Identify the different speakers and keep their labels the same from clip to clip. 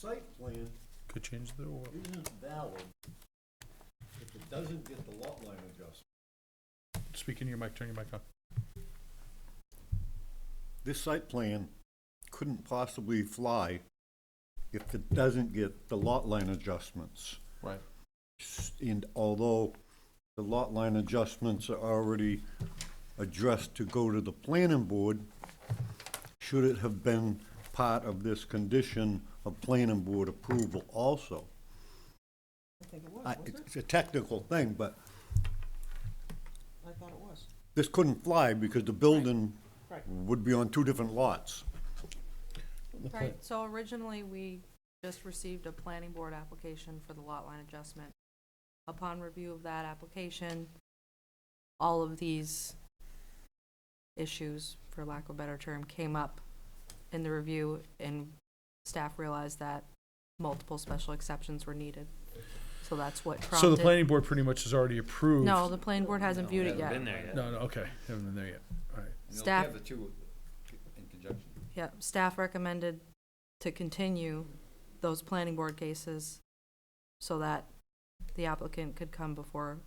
Speaker 1: site plan
Speaker 2: Could change the order.
Speaker 1: isn't valid if it doesn't get the lot line adjustment.
Speaker 2: Speak into your mic, turn your mic on.
Speaker 1: This site plan couldn't possibly fly if it doesn't get the lot line adjustments.
Speaker 2: Right.
Speaker 1: And although the lot line adjustments are already addressed to go to the planning board, should it have been part of this condition of planning board approval also?
Speaker 3: I think it was,
Speaker 1: I-
Speaker 3: wasn't it?
Speaker 1: It's a technical thing, but
Speaker 3: I thought it was.
Speaker 1: this couldn't fly because the building
Speaker 3: Right.
Speaker 1: would be on two different lots.
Speaker 4: Right, so originally, we just received a planning board application for the lot line adjustment. Upon review of that application, all of these issues, for lack of a better term, came up in the review, and staff realized that multiple special exceptions were needed. So that's what
Speaker 2: So the
Speaker 4: prompted.
Speaker 2: planning board pretty much has already approved.
Speaker 4: No, the planning board hasn't viewed it yet.
Speaker 5: Been there yet.
Speaker 2: No, no, okay, haven't been there yet, all right.
Speaker 6: You know,
Speaker 4: Staff-
Speaker 6: They have the two in conjunction.
Speaker 4: Yep, staff recommended to continue those planning board cases so that the applicant could come before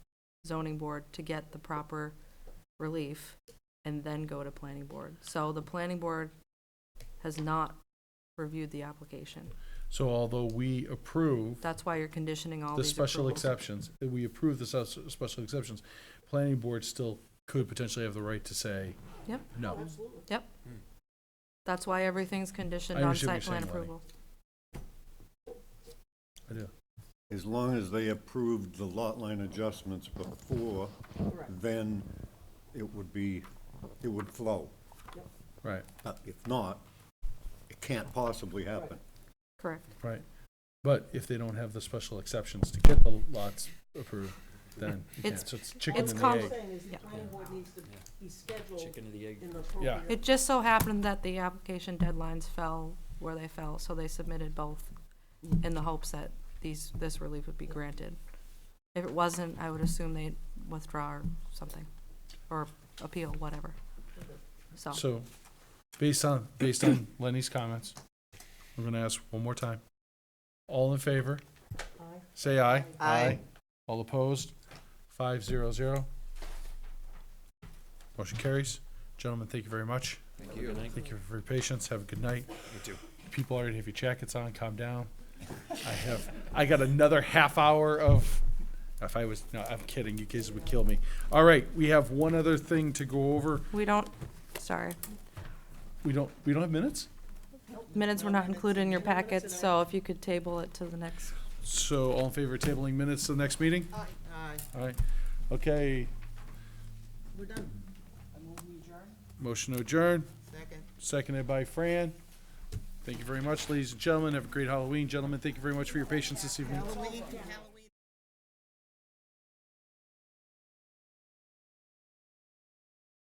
Speaker 4: zoning board to get the proper relief and then go to planning board. So the planning board has not reviewed the application.
Speaker 2: So although we approve
Speaker 4: That's why you're conditioning all
Speaker 2: the
Speaker 4: these
Speaker 2: special
Speaker 4: approvals.
Speaker 2: exceptions, eh, we approve the sus- special exceptions, planning board still could potentially have the right to say
Speaker 4: Yep,
Speaker 2: no.
Speaker 4: yep.
Speaker 6: Hmm.
Speaker 4: That's why everything's conditioned
Speaker 2: I
Speaker 4: on
Speaker 2: understand what you're
Speaker 4: site plan
Speaker 2: saying, Lonnie.
Speaker 4: approval.
Speaker 2: I do.
Speaker 1: As long as they approved the lot line adjustments before,
Speaker 3: Correct.
Speaker 1: then it would be, it would flow.
Speaker 2: Right,
Speaker 1: But if not, it can't possibly happen.
Speaker 4: Correct.
Speaker 2: right. But if they don't have the special exceptions to get the lots approved, then you can't.
Speaker 4: It's-
Speaker 2: So it's chicken
Speaker 4: it's
Speaker 2: and
Speaker 3: All
Speaker 2: the
Speaker 3: I'm
Speaker 2: egg.
Speaker 3: saying is the
Speaker 4: Yeah.
Speaker 3: planning board needs to be scheduled
Speaker 5: Chicken and the egg.
Speaker 3: in the appropriate.
Speaker 4: It just so happened that the application deadlines fell where they fell, so they submitted both in the hopes that these, this relief would be granted. If it wasn't, I would assume they'd withdraw or something, or appeal, whatever. So,
Speaker 2: So, based on, based on Lenny's comments, I'm gonna ask one more time. All in favor?
Speaker 3: Aye.
Speaker 2: Say aye.
Speaker 3: Aye.
Speaker 2: All opposed? Five zero zero. Motion carries. Gentlemen, thank you very much.
Speaker 6: Thank you.
Speaker 2: Thank you for your patience. Have a good night. You
Speaker 5: too.
Speaker 2: People already have your jackets on. Calm down. I have, I got another half hour of, if I was, no, I'm kidding. You guys would kill me. All right, we have one other thing to go over.
Speaker 4: we don't, sorry,
Speaker 2: We don't, we don't have minutes?
Speaker 4: minutes were not included in your packets, so if you could table it to the next.
Speaker 2: So all in favor of tabling minutes to the next meeting?
Speaker 3: Aye, aye.
Speaker 2: All right, okay,
Speaker 3: We're done. I move we adjourn.
Speaker 2: motion to adjourn,
Speaker 3: Second.
Speaker 2: seconded by Fran. Thank you very much, ladies and gentlemen, have a great Halloween, gentlemen, thank you very much for your patience this evening.
Speaker 3: Halloween, Halloween.